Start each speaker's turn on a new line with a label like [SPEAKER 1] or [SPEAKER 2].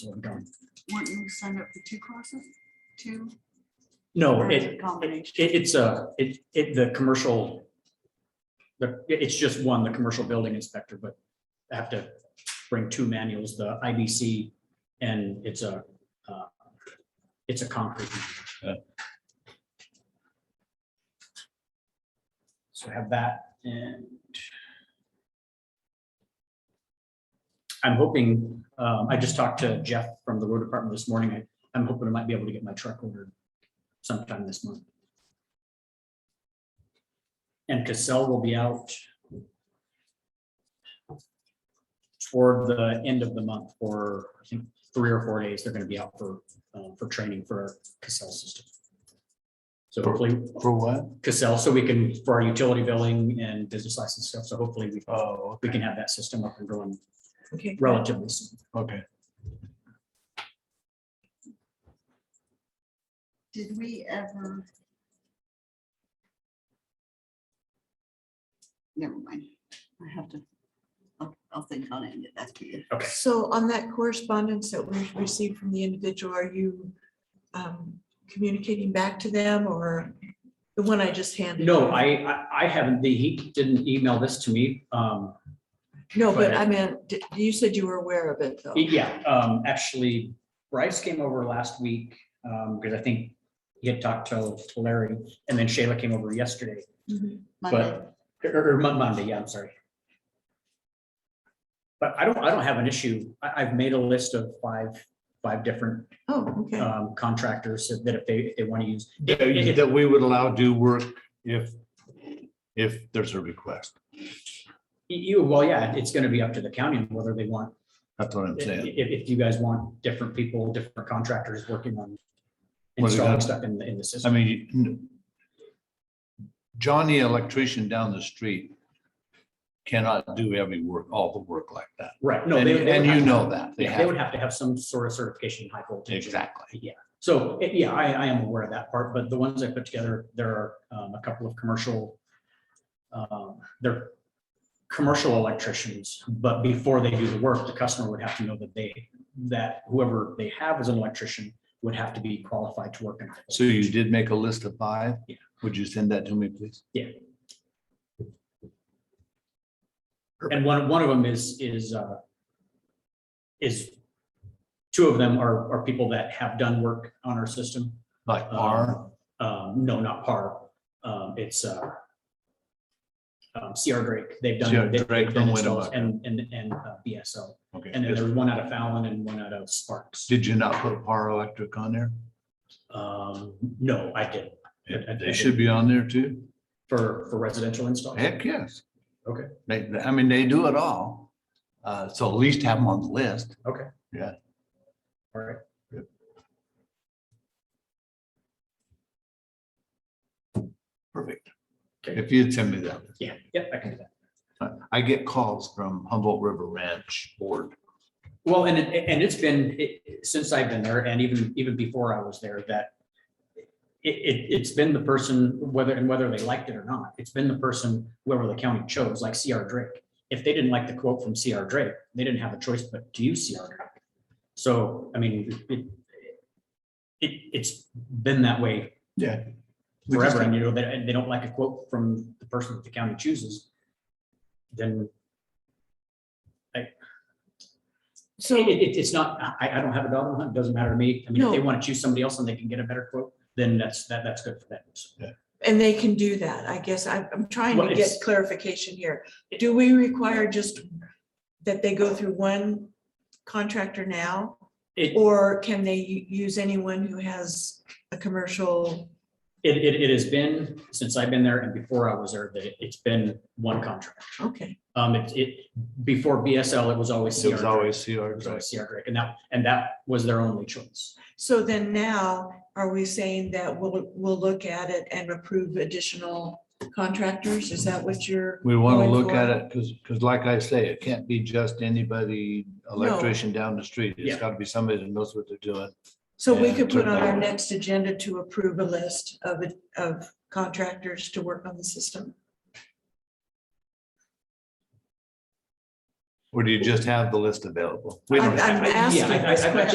[SPEAKER 1] we're done.
[SPEAKER 2] Weren't you signed up for two classes? Two?
[SPEAKER 1] No,
[SPEAKER 2] or is
[SPEAKER 1] it,
[SPEAKER 2] it Combination.
[SPEAKER 1] It, it's a, it, it, the commercial, the, it's just one, the commercial building inspector, but I have to bring two manuals, the IBC and it's a, uh, it's a concrete. manual. So have that and I'm hoping, um, I just talked to Jeff from the road department this morning. I- I'm hoping I might be able to get my truck ordered sometime this month. And Cassell will be out toward the end of the month for, I think, three or four days. They're gonna be out for, uh, for training for our Cassell system. So hopefully
[SPEAKER 3] For what?
[SPEAKER 1] Cassell, so we can, for our utility billing and business license stuff, so hopefully we,
[SPEAKER 3] Oh,
[SPEAKER 1] we can have that system up and going
[SPEAKER 2] Okay.
[SPEAKER 1] relatively soon.
[SPEAKER 3] okay.
[SPEAKER 2] Did we ever? Never mind. I have to, I'll, I'll think on it and get back to you.
[SPEAKER 4] So on that correspondence that we've received from the individual, are you um, communicating back to them or the one I just handed?
[SPEAKER 1] No, I, I, I haven't, the- he didn't email this to me. Um,
[SPEAKER 4] No, but I meant, d- you said you were aware of it though.
[SPEAKER 1] Yeah, um, actually Bryce came over last week, um, because I think he had talked to to Larry and then Shayla came over yesterday,
[SPEAKER 4] Mhm.
[SPEAKER 2] Monday.
[SPEAKER 1] but, or, or Mon- Monday, yeah, I'm sorry. But I don't, I don't have an issue. I, I've made a list of five, five different,
[SPEAKER 4] Oh, okay.
[SPEAKER 1] um, contractors that if they, if they want to use.
[SPEAKER 3] That that we would allow do work if, if there's a request.
[SPEAKER 1] You, well, yeah, it's gonna be up to the county on whether they want
[SPEAKER 3] That's what I'm
[SPEAKER 1] If,
[SPEAKER 3] saying.
[SPEAKER 1] if- if you guys want different people, different contractors working on
[SPEAKER 3] What do you
[SPEAKER 1] installing
[SPEAKER 3] got?
[SPEAKER 1] stuff in, the in the
[SPEAKER 3] I
[SPEAKER 1] system.
[SPEAKER 3] mean, n- Johnny electrician down the street cannot do every work, all the work like that.
[SPEAKER 1] Right, no,
[SPEAKER 3] And
[SPEAKER 1] they. they
[SPEAKER 3] and
[SPEAKER 1] would
[SPEAKER 3] you
[SPEAKER 1] have-
[SPEAKER 3] know that. They
[SPEAKER 1] yeah, They
[SPEAKER 3] have,
[SPEAKER 1] would have to have some sort of certification in high voltage.
[SPEAKER 3] exactly.
[SPEAKER 1] So, eh, yeah, I, I am aware of that part, but the ones I put together, there are um, a couple of commercial, um, they're commercial electricians, but before they do the work, the customer would have to know that they, that whoever they have as an electrician would have to be qualified to work in. high
[SPEAKER 3] So you
[SPEAKER 1] voltage.
[SPEAKER 3] did make a list of five?
[SPEAKER 1] Yeah.
[SPEAKER 3] Would you send that to me, please?
[SPEAKER 1] And one, one of them is, is, uh, is, two of them are, are people that have done work on our system.
[SPEAKER 3] Like
[SPEAKER 1] Um,
[SPEAKER 3] R,
[SPEAKER 1] Um, no, not par. Um, it's, uh, um, CR Drake. They've
[SPEAKER 3] CR
[SPEAKER 1] done. they've
[SPEAKER 3] Drake
[SPEAKER 1] done
[SPEAKER 3] from
[SPEAKER 1] installs
[SPEAKER 3] Winnemucca.
[SPEAKER 1] And, and, and uh, BSO.
[SPEAKER 3] okay.
[SPEAKER 1] And then there's one out of Fallon and one out of Sparks.
[SPEAKER 3] Did you not put Par Electric on there?
[SPEAKER 1] Um, no, I did. I- I
[SPEAKER 3] They
[SPEAKER 1] did.
[SPEAKER 3] should be on there too.
[SPEAKER 1] For, for residential installs.
[SPEAKER 3] Heck, yes.
[SPEAKER 1] Okay.
[SPEAKER 3] They, they- I mean, they do it all. Uh, so at least have them on the list.
[SPEAKER 1] All right.
[SPEAKER 3] Yep. Perfect.
[SPEAKER 1] Okay.
[SPEAKER 3] If you'd send me that.
[SPEAKER 1] Yeah, yeah, I can do that.
[SPEAKER 3] Uh, I get calls from Humboldt River Ranch Board.
[SPEAKER 1] Well, and, it- and it's been, it- since I've been there and even, even before I was there, that it, it, it's been the person, whether, and whether they liked it or not, it's been the person, whoever the county chose, like CR Drake. If they didn't like the quote from CR Drake, they didn't have a choice but to use CR Drake. So, I mean, it, it, it's been that way
[SPEAKER 3] Yeah.
[SPEAKER 1] forever. And you know, they, and they don't like a quote from the person that the county chooses, then
[SPEAKER 4] So,
[SPEAKER 1] It, it- it's not, I, I don't have a dog on the hunt, doesn't matter to me. I mean, if they
[SPEAKER 4] No.
[SPEAKER 1] want to choose somebody else and they can get a better quote, then that's, that, that's good for them. So
[SPEAKER 4] and they can do that, I guess. I'm, I'm trying
[SPEAKER 1] Well,
[SPEAKER 4] to
[SPEAKER 1] it's-
[SPEAKER 4] get clarification here. Do we require just that they go through one contractor now?
[SPEAKER 1] It,
[SPEAKER 4] Or can they u- use anyone who has a commercial?
[SPEAKER 1] it, it, it has been, since I've been there and before I was there, that it- it's been one contract.
[SPEAKER 4] Okay,
[SPEAKER 1] Um, it, it, before BSL, it was always
[SPEAKER 3] It
[SPEAKER 1] CR
[SPEAKER 3] was
[SPEAKER 1] Drake.
[SPEAKER 3] always CR.
[SPEAKER 1] It was always CR Drake, and that, and that was their only choice.
[SPEAKER 4] so then now, are we saying that we'll, we'll look at it and approve additional contractors? Is that what you're?
[SPEAKER 3] We want to
[SPEAKER 4] Going
[SPEAKER 3] look at
[SPEAKER 4] forward.
[SPEAKER 3] it because, because like I say, it can't be just anybody electrician down the street.
[SPEAKER 1] Yeah.
[SPEAKER 3] It's got to be somebody that knows what they're doing.
[SPEAKER 4] So we
[SPEAKER 3] Yeah,
[SPEAKER 4] could put on our
[SPEAKER 3] certainly.
[SPEAKER 4] next agenda to approve a list of, it- of contractors to work on the system.
[SPEAKER 3] Or do you just have the list available?
[SPEAKER 1] We
[SPEAKER 4] I'm-
[SPEAKER 1] don't-
[SPEAKER 4] I'm
[SPEAKER 1] I- I- yeah,
[SPEAKER 4] asking
[SPEAKER 1] I- I-
[SPEAKER 4] this
[SPEAKER 1] I've actually